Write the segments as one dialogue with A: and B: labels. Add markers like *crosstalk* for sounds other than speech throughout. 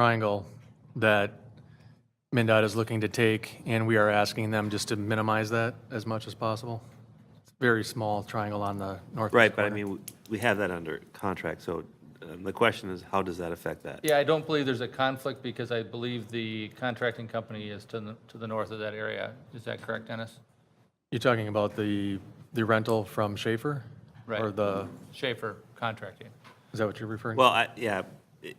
A: triangle that MinDOT is looking to take, and we are asking them just to minimize that as much as possible. It's a Very small triangle on the north.
B: Right, but I mean, w- we have that under contract, so um, the question is, how does that affect that?
C: Yeah, I don't believe there's a conflict because I believe the contracting company is to the, to the north of that area. Is that correct, Dennis?
A: You're talking about the, the rental from Schaefer?
C: Right.
A: Or the,
C: Schaefer Contracting.
A: is that what you're referring? to?
B: Well, I, yeah, it-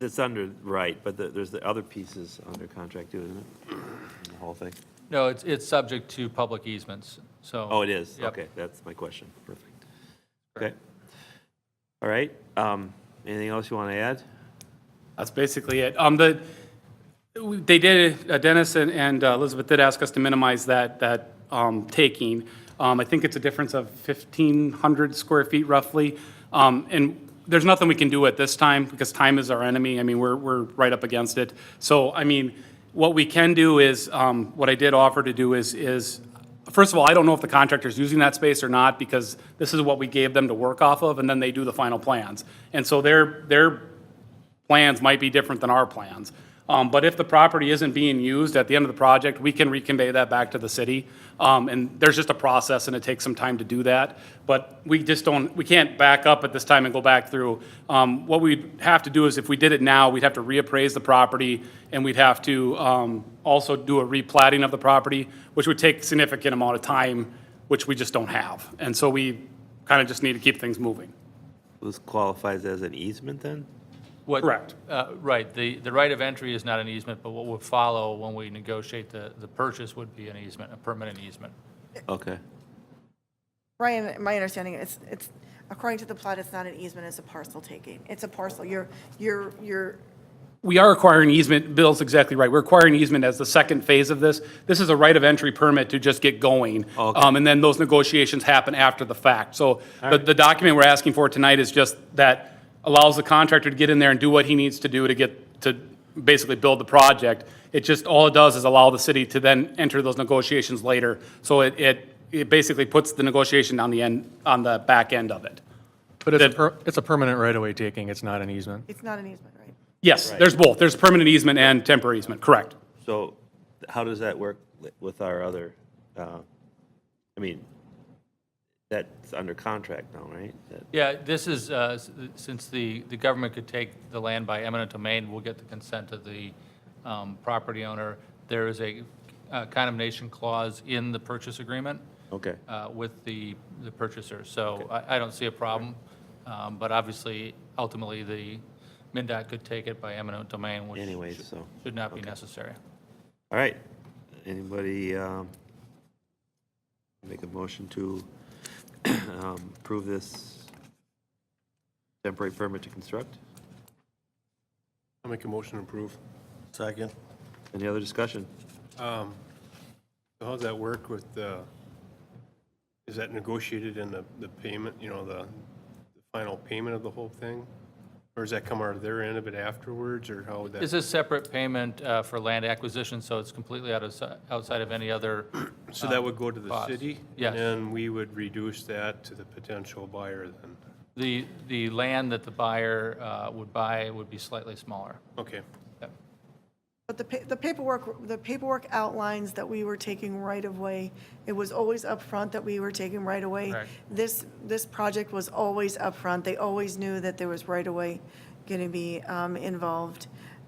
B: it's under, right, but the- there's the other pieces under contract too, isn't it? The whole thing?
C: No, it's, it's subject to public easements, so.
B: Oh, it is?
C: Yep.
B: Okay, that's my question. Perfect. Okay. All right, um, anything else you want to add?
D: That's basically it. Um, the, they did, uh, Dennis and, and uh, Elizabeth did ask us to minimize that, that, um, taking. Um, I think it's a difference of fifteen hundred square feet roughly. Um, and there's nothing we can do at this time because time is our enemy. I mean, we're, we're right up against it. So, I mean, what we can do is, um, what I did offer to do is, is First of all, I don't know if the contractor's using that space or not, because this is what we gave them to work off of, and then they do the final plans. And so their, their plans might be different than our plans. Um, but if the property isn't being used at the end of the project, we can reconvey that back to the city. Um, and there's just a process and it takes some time to do that. But we just don't, we can't back up at this time and go back through. Um, what we'd have to do is if we did it now, we'd have to reappraise the property and we'd have to, um, also do a replatting of the property, which would take significant amount of time, which we just don't have. And so we kind of just need to keep things moving.
B: This qualifies as an easement then?
C: What-
D: Correct.
C: uh, Right, the, the right of entry is not an easement, but what would follow when we negotiate the, the purchase would be an easement, a permanent easement.
B: Okay,
E: Ryan, my understanding is, it's, according to the plot, it's not an easement, it's a parcel taking. It's a parcel, you're, you're, you're,
D: we are acquiring easement, Bill's exactly right, we're acquiring easement as the second phase of this. This is a right of entry permit to just get going.
B: Okay.
D: Um, And then those negotiations happen after the fact. So the, the document we're asking for tonight is just that allows the contractor to get in there and do what he needs to do to get, to basically build the project. It just, all it does is allow the city to then enter those negotiations later. So it, it, it basically puts the negotiation on the end, on the back end of it.
A: But it's, a per- it's a permanent right-of-way taking, it's not an easement.
E: it's not an easement, right?
D: Yes, there's both, there's permanent easement and temporary easement, correct.
B: so how does that work li- with our other, uh, I mean, that's under contract now, right? That-
C: Yeah, this is, uh, s- since the, the government could take the land by eminent domain, we'll get the consent of the um, property owner. There is a uh, condemnation clause in the purchase agreement
B: Okay.
C: uh, with the, the purchaser, so I, I don't see a problem. Um, But obviously, ultimately, the MinDOT could take it by eminent domain, which
B: Anyway, so,
C: should not be necessary.
B: all right. Anybody um, make a motion to *clears throat* um, approve this temporary permit to construct?
F: I'll make a motion to approve. Second.
B: Any other discussion?
F: Um, so How's that work with the, is that negotiated in the, the payment, you know, the the final payment of the whole thing? Or does that come out of their end of it afterwards, or how would
C: It's
F: that?
C: a separate payment uh, for land acquisition, so it's completely out of, si- outside of any other
F: So that would go to the
C: cost?
F: city?
C: Yes.
F: And then we would reduce that to the potential buyer then?
C: The, the land that the buyer uh, would buy would be slightly smaller.
F: Okay,
C: Yep.
E: But the, pa- the paperwork, the paperwork outlines that we were taking right of way. It was always upfront that we were taking right of way.
C: Correct.
E: This, this project was always upfront. They always knew that there was right of way going to be um, involved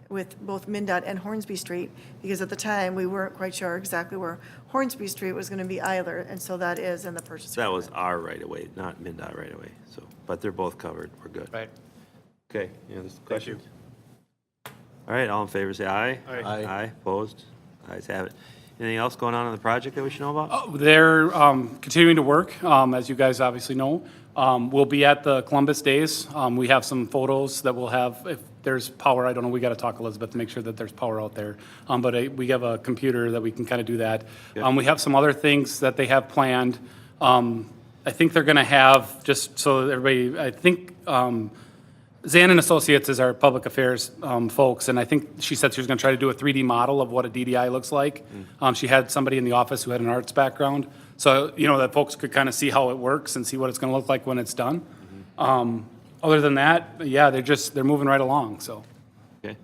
E: with both MinDOT and Hornsby Street, because at the time, we weren't quite sure exactly where Hornsby Street was going to be either, and so that is in the purchase.
B: That was our right-of-way, not MinDOT right-of-way, so, but they're both covered, we're good.
C: Right.
B: Okay, any other questions? All right, all in favor, say aye.
F: Aye. Aye.
B: Aye, opposed? Ayes have it. Anything else going on in the project that we should know about?
D: They're um, continuing to work, um, as you guys obviously know. Um, We'll be at the Columbus Days. Um, We have some photos that we'll have, if there's power, I don't know, we got to talk, Elizabeth, to make sure that there's power out there. Um, But uh, we have a computer that we can kind of do that. Um, We have some other things that they have planned. Um, I think they're going to have, just so everybody, I think um, Zan and Associates is our public affairs um, folks, and I think she said she was going to try to do a 3D model of what a DDI looks like. Um, She had somebody in the office who had an arts background, so, you know, that folks could kind of see how it works and see what it's going to look like when it's done. Um, Other than that, yeah, they're just, they're moving right along, so.